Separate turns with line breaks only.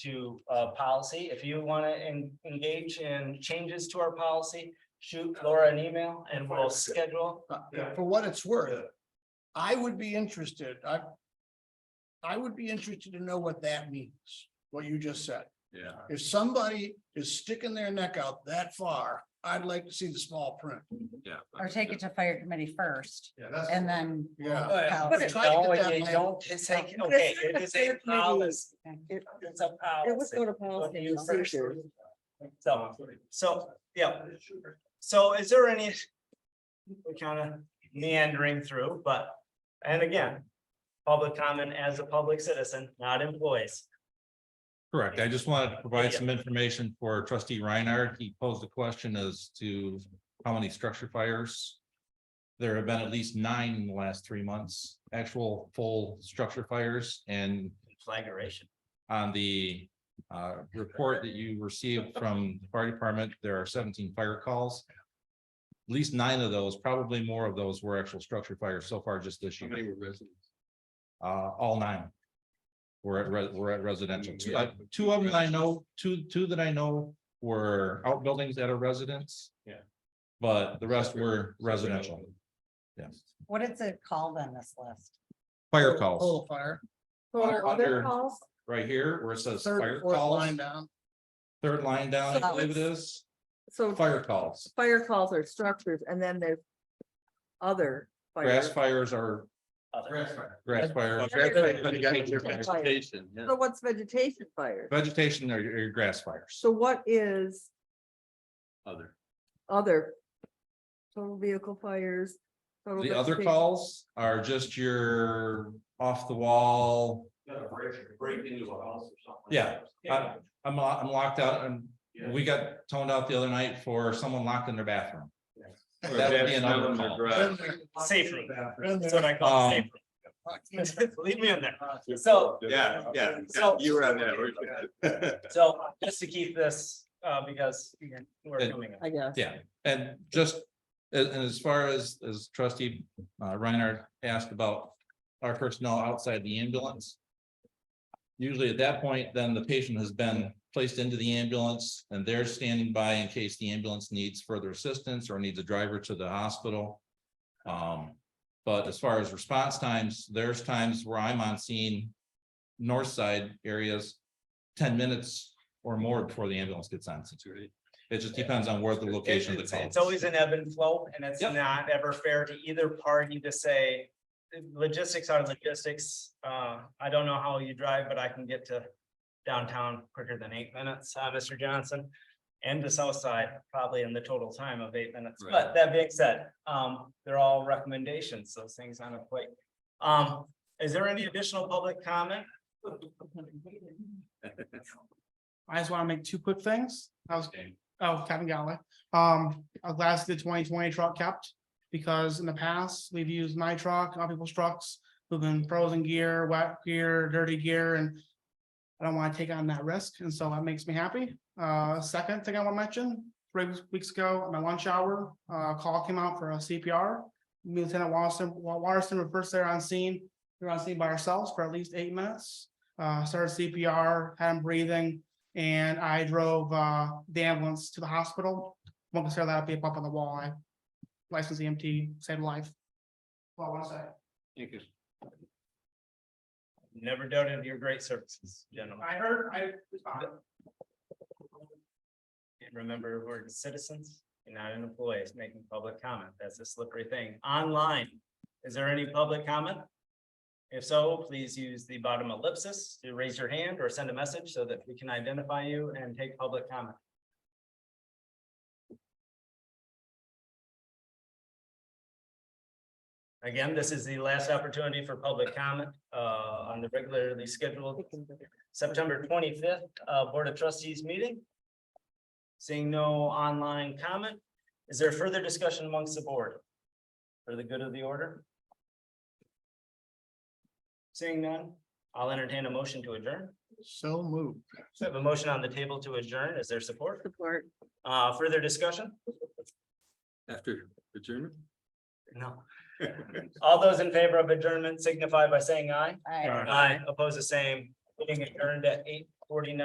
to uh policy. If you want to engage in changes to our policy, shoot Laura an email and we'll schedule.
Uh,
Yeah.
For what it's worth, I would be interested, I. I would be interested to know what that means, what you just said.
Yeah.
If somebody is sticking their neck out that far, I'd like to see the small print.
Yeah.
Or take it to fire committee first
Yeah, that's.
and then.
Yeah.
Policy.
try to
Don't,
get that
you
language.
don't, it's like, okay, it is a policy.
It
It's a policy.
to
What you first. So, so, yeah. So is there any? We're kind of meandering through, but, and again, public comment as a public citizen, not employees.
Correct. I just wanted to provide some information for trustee Reinhardt. He posed a question as to how many structure fires. There have been at least nine in the last three months, actual full structure fires and
Flagration.
on the uh report that you received from the fire department, there are seventeen fire calls. At least nine of those, probably more of those were actual structure fires so far just this year. How many were residents? Uh, all nine. Were at re- were at residential. Two, uh, two of them I know, two, two that I know were outbuildings at a residence.
Yeah.
But the rest were residential. Yes,
What is it called on this list?
fire
Total
calls
fire,
Or
other
other-
calls,
right here where it says
third,
fire
and fourth
calls,
line down.
third line down, I
So
believe it
it's-
is.
so
Fire calls,
fire calls are structures and then there's other. fire-
grass fires are grass fires. Oh,
Vegetation, yeah.
So what's vegetation fire?
Vegetation are your grass fires.
So what is
Other.
other? Total vehicle fires. total
The other
vegetation-
calls are just your off the wall,
Break into a house or something.
Yeah. I- I'm, lo- I'm locked out and we got toned out the other night for someone locked in their bathroom. That would be another call.
Been
Safely.
Been
That's what
there.
I call
Um,
safe. Leave me in there. So-
Yeah, yeah,
So-
you were on that.
So just to keep this, uh, because we're
Good.
coming. up.
I guess.
Yeah, and just, and, and as far as, as trustee uh, Reinhardt asked about our personnel outside the ambulance. Usually at that point, then the patient has been placed into the ambulance and they're standing by in case the ambulance needs further assistance or needs a driver to the hospital. Um, but as far as response times, there's times where I'm on scene, north side areas, ten minutes or more before the ambulance gets on. It just depends on where the location of the
It's-
call.
It's always an ebb and flow and it's
Yep.
not ever fair to either party to say logistics are logistics. Uh, I don't know how you drive, but I can get to downtown quicker than eight minutes, uh, Mr. Johnson. And the south side probably in the total time of eight minutes. But
Right.
that being said, um, they're all recommendations, those things on a plate. Um, is there any additional public comment?
I just want to make two quick things. I was, oh, Captain Galloway. Um, I'm glad the twenty twenty truck kept. Because in the past, we've used my truck, other people's trucks, moving frozen gear, wet gear, dirty gear, and. I don't want to take on that risk, and so that makes me happy. Uh, second thing I want to mention, three weeks ago, at my lunch hour, uh, a call came out for a CPR. Me and Lieutenant Watson, Wa- Watterson were first there on scene. We were on scene by ourselves for at least eight minutes. Uh, started CPR, had him breathing, and I drove uh the ambulance to the hospital. Won't consider that a big bump on the wall. I licensed EMT, saved a life. Well, I want to say,
Never doubted your great services, gentlemen.
I heard, I.
And remember, we're citizens, and not an employee, It's making public comment, that's a slippery thing, online, is there any public comment? If so, please use the bottom ellipsis to raise your hand or send a message so that we can identify you and take public comment. Again, this is the last opportunity for public comment, uh, on the regularly scheduled September twenty-fifth, uh, Board of Trustees meeting. Seeing no online comment, is there further discussion amongst the board? For the good of the order? Seeing none, I'll entertain a motion to adjourn.
So moved.
So I have a motion on the table to adjourn. Is there support?
Support.
Uh, further discussion?
After adjournment?
No. All those in favor of adjournment signify by saying aye.
I-
Aye. Oppose the same, being adjourned at eight forty-nine.